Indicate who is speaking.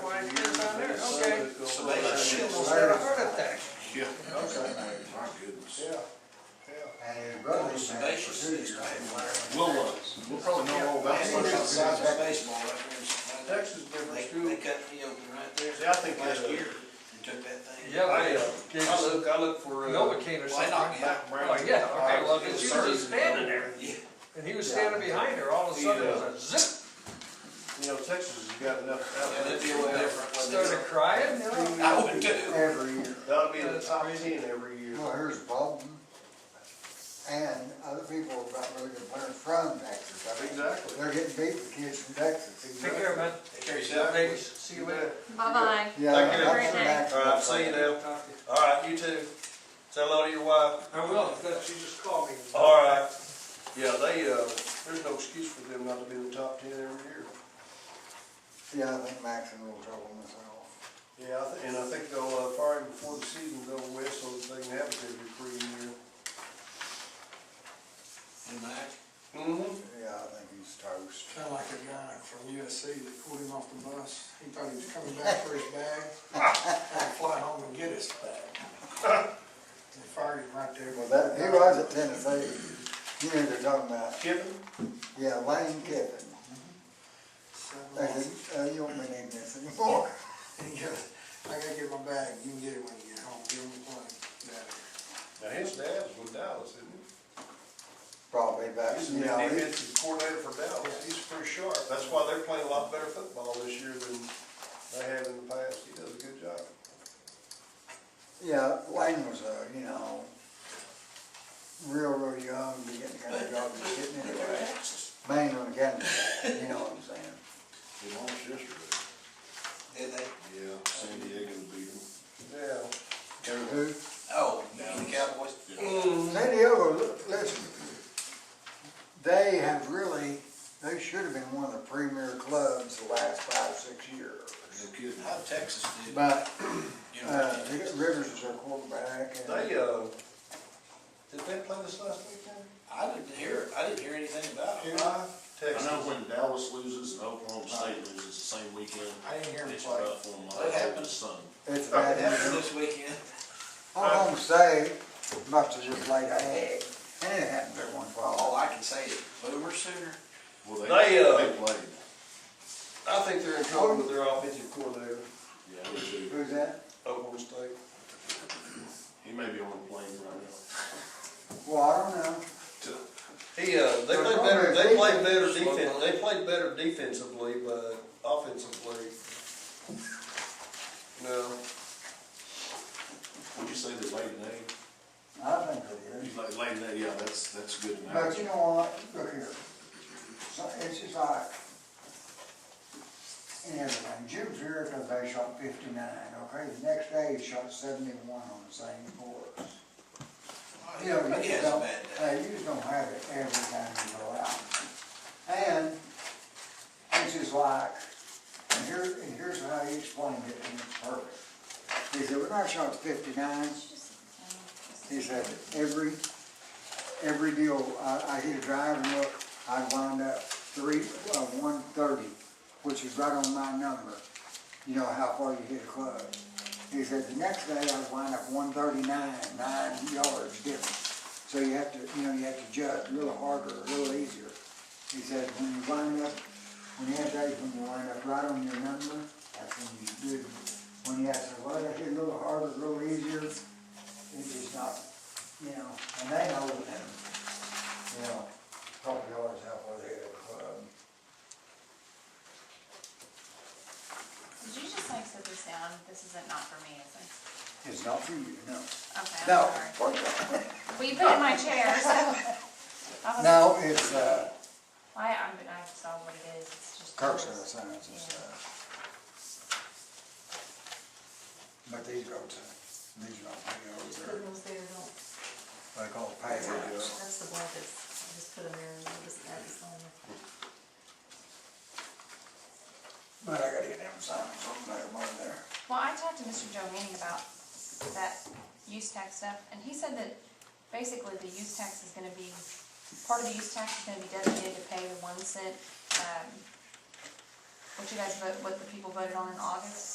Speaker 1: "Oh,
Speaker 2: serious type of player.
Speaker 3: We'll, uh, we'll probably know all about
Speaker 2: That's what
Speaker 3: it.
Speaker 2: it's size of baseball, that was.
Speaker 4: Texas is a different
Speaker 2: They,
Speaker 4: school.
Speaker 2: they cut me open right there.
Speaker 4: Yeah, I think
Speaker 2: Last
Speaker 4: that, uh,
Speaker 2: year, and took that thing.
Speaker 1: Yeah,
Speaker 4: I,
Speaker 1: they,
Speaker 4: uh,
Speaker 1: they
Speaker 4: I
Speaker 1: just,
Speaker 4: look, I look for, uh.
Speaker 1: Noah came or
Speaker 2: Why not?
Speaker 1: something.
Speaker 4: Mac Brown.
Speaker 1: Like, yeah, okay, well,
Speaker 4: Uh,
Speaker 1: if she was just
Speaker 4: he was serving,
Speaker 1: standing
Speaker 4: you know,
Speaker 1: there,
Speaker 2: Yeah.
Speaker 1: and he was standing behind her, all of a
Speaker 4: He,
Speaker 1: sudden, it
Speaker 4: uh,
Speaker 1: was a zip,
Speaker 4: You know, Texas has got enough.
Speaker 2: Yeah, that'd be a little different. wouldn't it?
Speaker 1: started crying, you know?
Speaker 2: I would too.
Speaker 5: every year.
Speaker 4: That'll be in the
Speaker 1: That's
Speaker 4: top
Speaker 1: crazy.
Speaker 4: ten every year.
Speaker 5: Well, here's Bolton, and other people have got really good players from Texas. I mean,
Speaker 4: Exactly.
Speaker 5: They're getting beat with kids from Texas.
Speaker 1: Take care, man,
Speaker 2: Take yourself.
Speaker 1: ladies, see you later.
Speaker 6: Bye-bye.
Speaker 5: Yeah,
Speaker 4: Thank
Speaker 5: that's
Speaker 6: you.
Speaker 5: from
Speaker 6: Great day.
Speaker 5: Texas.
Speaker 7: All right, see you
Speaker 1: Talk
Speaker 7: now.
Speaker 1: to you.
Speaker 7: All right, you too. Say hello to your wife.
Speaker 1: I will, if that's, you just call me.
Speaker 7: All right.
Speaker 4: Yeah, they, uh, there's no excuse for them not to be in the top ten every year.
Speaker 5: Yeah, I think Max in a little trouble myself.
Speaker 4: Yeah, I thi- and I think they'll, uh, fire him before the season's over with, so that they can have it every three year.
Speaker 2: And Mac,
Speaker 4: Mm-hmm.
Speaker 5: Yeah, I think he's toast.
Speaker 8: Kind of like a guy from USC that pulled him off the bus. He thought he was coming back for his bag. Had to fly home and get his bag. They fired him right there.
Speaker 5: Well, that, he was at Tennessee. You know, they're talking about,
Speaker 4: Kiffin?
Speaker 5: yeah, Lane Kiffin.
Speaker 8: Seven
Speaker 5: They
Speaker 8: months.
Speaker 5: said, uh, you won't be needing this anymore.
Speaker 8: He goes, I gotta get my bag. You can get it when you get home. Give him the plane. Yeah.
Speaker 4: Now, his dad's with Dallas, isn't he?
Speaker 5: Probably back,
Speaker 4: He's the
Speaker 5: you know, he-
Speaker 4: defensive coordinator for Dallas, he's pretty sharp, that's why they're playing a lot better football this year than they have in the past, he does a good job.
Speaker 5: yeah, Lane was a, you know, real, real young, to get the kind of job he's getting anyway. Main on the county, you know what I'm saying?
Speaker 7: We lost yesterday.
Speaker 2: did they?
Speaker 7: Yeah, San Diego beat them.
Speaker 4: Yeah,
Speaker 5: Who? Mm.
Speaker 2: Oh, the Cowboys.
Speaker 5: San Diego, li- listen, they have really, they should have been one of the premier clubs the last five, six years.
Speaker 7: No kidding.
Speaker 2: How Texas did,
Speaker 5: But,
Speaker 2: you know,
Speaker 5: uh, they got Rivers as their quarterback and
Speaker 4: they, uh, did they play this last weekend?
Speaker 2: I didn't hear, I didn't hear anything about it.
Speaker 4: Carolina,
Speaker 7: I
Speaker 4: Texas.
Speaker 7: know when Dallas loses and Oklahoma State loses the same weekend,
Speaker 8: I didn't hear him
Speaker 7: it's
Speaker 8: play.
Speaker 7: rough on my.
Speaker 2: That happens.
Speaker 7: Son.
Speaker 2: It
Speaker 5: it's a bad.
Speaker 2: happened this weekend.
Speaker 5: I'm gonna say, must have just laid a egg. And it happened every once in a
Speaker 2: All
Speaker 5: while.
Speaker 2: I can say is Boomer Sooner.
Speaker 7: Well, they,
Speaker 4: They, uh,
Speaker 7: they played.
Speaker 4: I think they're in trouble with their offensive coordinator,
Speaker 7: Yeah, they do.
Speaker 5: Who's that?
Speaker 4: Oklahoma State.
Speaker 7: He may be on the plane right now.
Speaker 5: Well, I don't know.
Speaker 4: He, uh, they
Speaker 5: They're
Speaker 4: played better,
Speaker 5: probably
Speaker 4: they played better
Speaker 2: defense.
Speaker 4: defense, they played better defensively, but offensively, no.
Speaker 7: Would you say the late name?
Speaker 5: I think it is.
Speaker 7: He's like, late name, yeah, that's, that's good enough.
Speaker 5: But you know what? Look here. So it's just like, in everything, Jim Jericho, they shot fifty-nine, okay? The next day, he shot seventy-one on the same course. You know, you
Speaker 2: He
Speaker 5: just
Speaker 2: has a
Speaker 5: don't,
Speaker 2: bad day.
Speaker 5: hey, you just don't have it every time you go out. And it's just like, and here, and here's how he explained it, and it's perfect. He said, when I shot fifty-nine, he said, every, every deal, I, I hit a drive and look, I wound up three, uh, one thirty, which is right on my number. You know how far you hit a club. He said, the next day I wound up one thirty-nine, nine yards different. So you have to, you know, you have to judge a little harder, a little easier. He said, when you wind up, when you have days when you wind up right on your number, that's when you do. When you have to, well, I hit a little harder, a little easier, it's just not, you know, and they know that, you know, probably always have what they have, um,
Speaker 6: Did you just like set this down? This isn't not for me, is it?
Speaker 5: it's not for you, no.
Speaker 6: Okay,
Speaker 5: No,
Speaker 6: I'm sorry.
Speaker 5: for you.
Speaker 6: Well, you put it in my chair, so. I was-
Speaker 5: no, it's, uh,
Speaker 6: I, I'm, I saw what it is, it's just.
Speaker 5: cursor signs and stuff. But these roads, uh, these roads, these roads are,
Speaker 9: Put those there, don't,
Speaker 5: they call pavers.
Speaker 9: that's the blankets, I just put them there and we'll just add this on there.
Speaker 5: But I gotta get them signs from there, more there.
Speaker 6: Well, I talked to Mr. Joe Manning about that use tax stuff, and he said that basically the use tax is gonna be, part of the use tax is gonna be designated to pay the one cent, um, what you guys vote, what the people voted on in August.